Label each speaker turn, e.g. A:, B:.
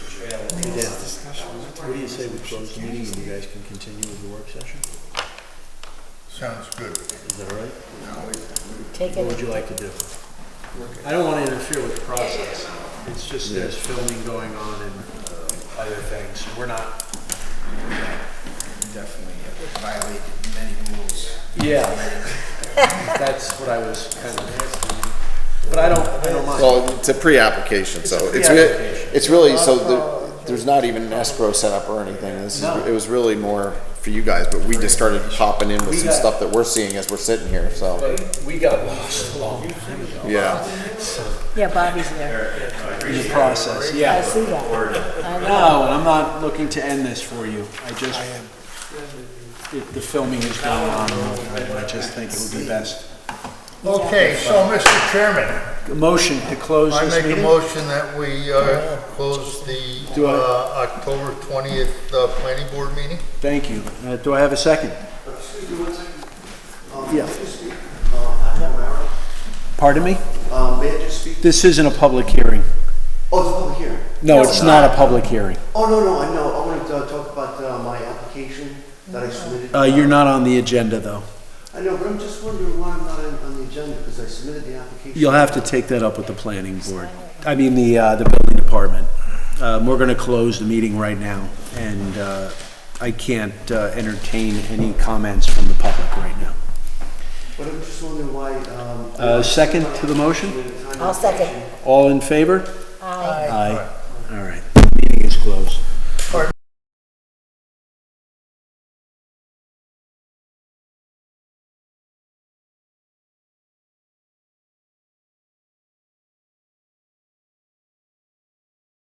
A: session.
B: What do you say we close the meeting and you guys can continue with the work session?
A: Sounds good.
B: Is that all right?
A: Now we-
C: Take
B: What
C: it,
B: would you like to do?
A: we-
B: I don't want to interfere with the process. It's just there's filming going on and uh, other things. We're not.
A: Definitely violated many rules.
B: Yeah. That's what I was kind of. But I don't. I don't mind.
D: Well, it's a pre-application, so it's, re-
B: pre-application.
D: it's really, so the- there's not even an escrow set up or anything. This is,
B: No.
D: it was really more for you guys, but we just started popping in
B: We
D: with some
B: got-
D: stuff that we're seeing as we're sitting here, so,
B: But we got lost a long time ago
D: yeah.
C: yeah, Bobby's there.
B: in the process. Yeah.
C: I see that. I know.
B: No, and I'm not looking to end this for you. I just, if the filming is going on, I just think it would be best.
E: Okay, so Mr. Chairman,
B: A Motion to close
E: I
B: this
E: make a
B: meeting?
E: motion that we uh, close the
B: Do I-
E: uh, October 20th uh, planning board meeting.
B: Thank you. Uh, Do I have a second?
F: Excuse me one second. Um,
B: Yeah.
F: may I just speak? Uh, I'm O'Mara.
B: Pardon me?
F: Um, May I just speak?
B: This isn't a public hearing.
F: Oh, it's public hearing.
B: No, it's not a public hearing.
F: Oh, no, no, I know. I wanted to uh, talk about uh, my application that I submitted.
B: Uh, You're not on the agenda, though.
F: I know, but I'm just wondering why I'm not on on the agenda because I submitted the application.
B: You'll have to take that up with the planning board, I mean, the, uh, the building department. Um, We're going to close the meeting right now, and uh, I can't uh, entertain any comments from the public right now.
F: But I'm just wondering why. um,
B: Uh, second to the motion?
F: submitted a time
C: I'll second.
F: application.
B: All in favor?
C: Aye.
B: Aye.